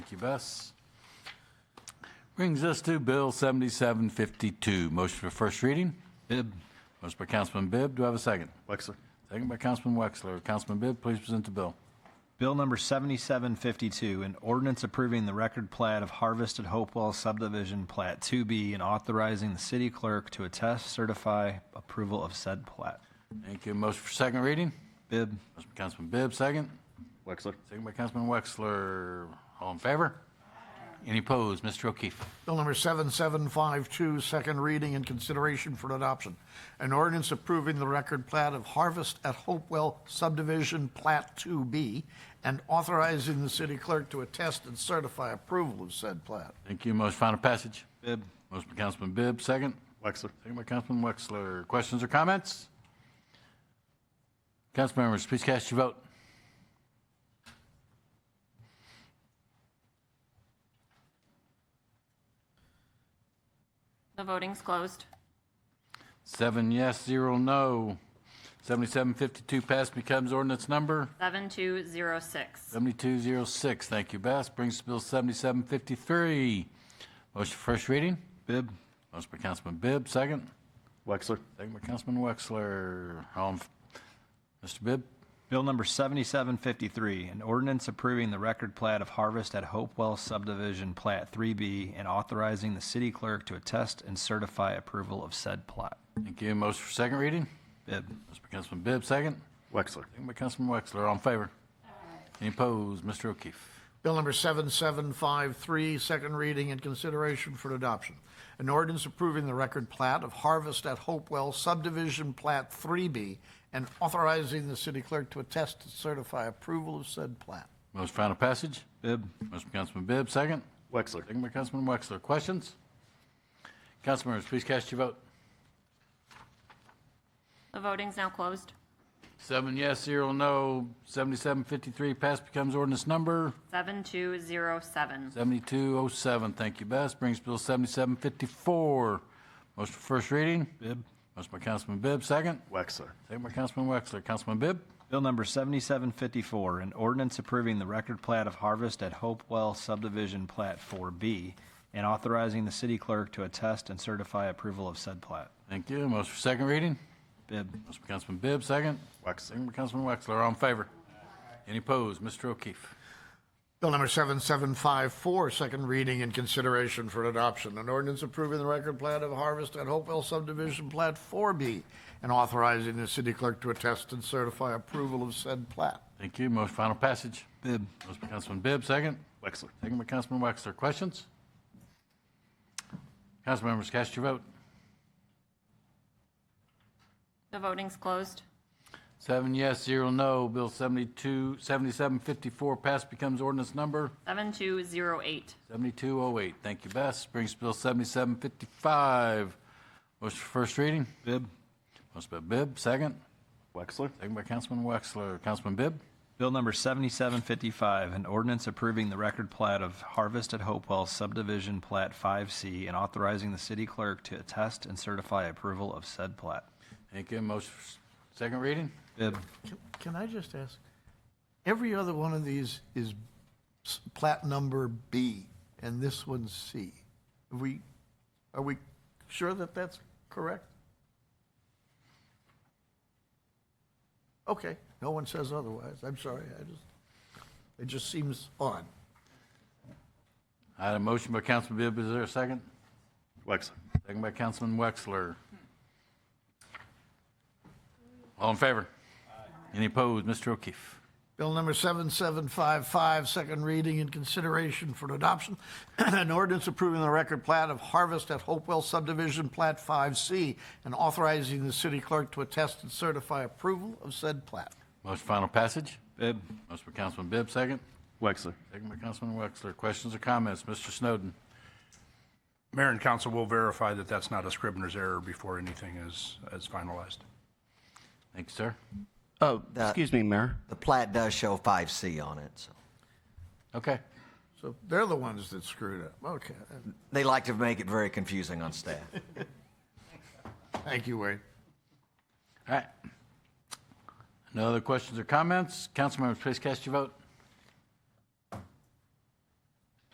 Thank you, Bess. Brings us to Bill 7752. Motion for first reading? Bibb. Motion by Councilman Bibb. Do I have a second? Wexler. Second by Councilman Wexler. Councilman Bibb, please present the bill. Bill number 7752, an ordinance approving the record plat of Harvest at Hopewell subdivision plat 2B and authorizing the city clerk to attest certify approval of said plat. Thank you. Motion for second reading? Bibb, Motion by Councilman Bibb, second. Wexler. Second by Councilman Wexler. All in favor? Any opposed? Mr. O'Keefe. Bill number 7752, second reading and consideration for adoption. An ordinance approving the record plat of Harvest at Hopewell subdivision, Plat 2B, and authorizing the city clerk to attest and certify approval of said plat. Thank you. Motion final passage? Bibb, Motion by Councilman Bibb, second. Wexler. Second by Councilman Wexler. Questions or comments? Council members, please cast your vote. The voting's closed. Seven yes, zero no. 7752 passed becomes ordinance number 7206. 7206. Thank you, Bess. Brings us to Bill 7753. Motion for first reading. Bibb, Motion by Councilman Bibb, second. Wexler. Second by Councilman Wexler. All in, f- Mr. Bibb? Bill number 7753, an ordinance approving the record plat of Harvest at Hopewell subdivision plat 3B and authorizing the city clerk to attest and certify approval of said plat. Thank you. Motion for second reading. Bibb, Motion by Councilman Bibb, second. Wexler. Second by Councilman Wexler. All in favor? Any opposed? Mr. O'Keefe. Bill number 7753, second reading and consideration for adoption. An ordinance approving the record plat of Harvest at Hopewell subdivision, Plat 3B, and authorizing the city clerk to attest and certify approval of said plat. Motion for final passage. Bibb, Motion by Councilman Bibb, second. Wexler. Second by Councilman Wexler. Questions? Councilmembers, please cast your vote. The voting's now closed. Seven yes, zero no. 7753 passed becomes ordinance number 7207. 7207. Thank you, Bess. Brings Bill 7754. Motion for first reading. Bibb. Motion by Councilman Bibb, second. Wexler. Second by Councilman Wexler. Councilman Bibb? Bill number 7754, an ordinance approving the record plat of Harvest at Hopewell subdivision plat 4B and authorizing the city clerk to attest and certify approval of said plat. Thank you. Motion for second reading. Bibb, Motion by Councilman Bibb, second. Wexler. Second by Councilman Wexler. All in favor? Any opposed? Mr. O'Keefe. Bill number 7754, second reading and consideration for adoption. An ordinance approving the record plat of Harvest at Hopewell subdivision, Plat 4B, and authorizing the city clerk to attest and certify approval of said plat. Thank you. Motion final passage. Bibb, Motion by Councilman Bibb, second. Wexler. Second by Councilman Wexler. Questions? Councilmembers, cast your vote. The voting's closed. Seven yes, zero no. Bill 72, 7754 passed becomes ordinance number 7208. 7208. Thank you, Bess. Brings Bill 7755. Motion for first reading. Bibb. Motion by Bibb, second. Wexler. Second by Councilman Wexler. Councilman Bibb? Bill number 7755, an ordinance approving the record plat of Harvest at Hopewell subdivision plat 5C and authorizing the city clerk to attest and certify approval of said plat. Thank you. Motion for s- second reading. Bibb, Can- Can I just ask, every other one of these is s- plat number B, and this one's C. Are we, are we sure that that's correct? Okay, no one says otherwise. I'm sorry, I just, it just seems odd. I had a motion by Councilman Bibb. Is there a second? Wexler. Second by Councilman Wexler. All in favor? Any opposed? Mr. O'Keefe. Bill number 7755, second reading and consideration for adoption. An ordinance approving the record plat of Harvest at Hopewell subdivision, Plat 5C, and authorizing the city clerk to attest and certify approval of said plat. Motion for final passage. Bibb, Motion by Councilman Bibb, second. Wexler. Second by Councilman Wexler. Questions or comments? Mr. Snowden. Mayor and council will verify that that's not a scrivener's error before anything is, is finalized. Thank you, sir. Oh, the, Excuse me, Mayor. the plat does show 5C on it. So. Okay. So they're the ones that screwed up. Okay. They like to make it very confusing on staff. Thank you, Wade. All right. No other questions or comments? Councilmembers, please cast your vote.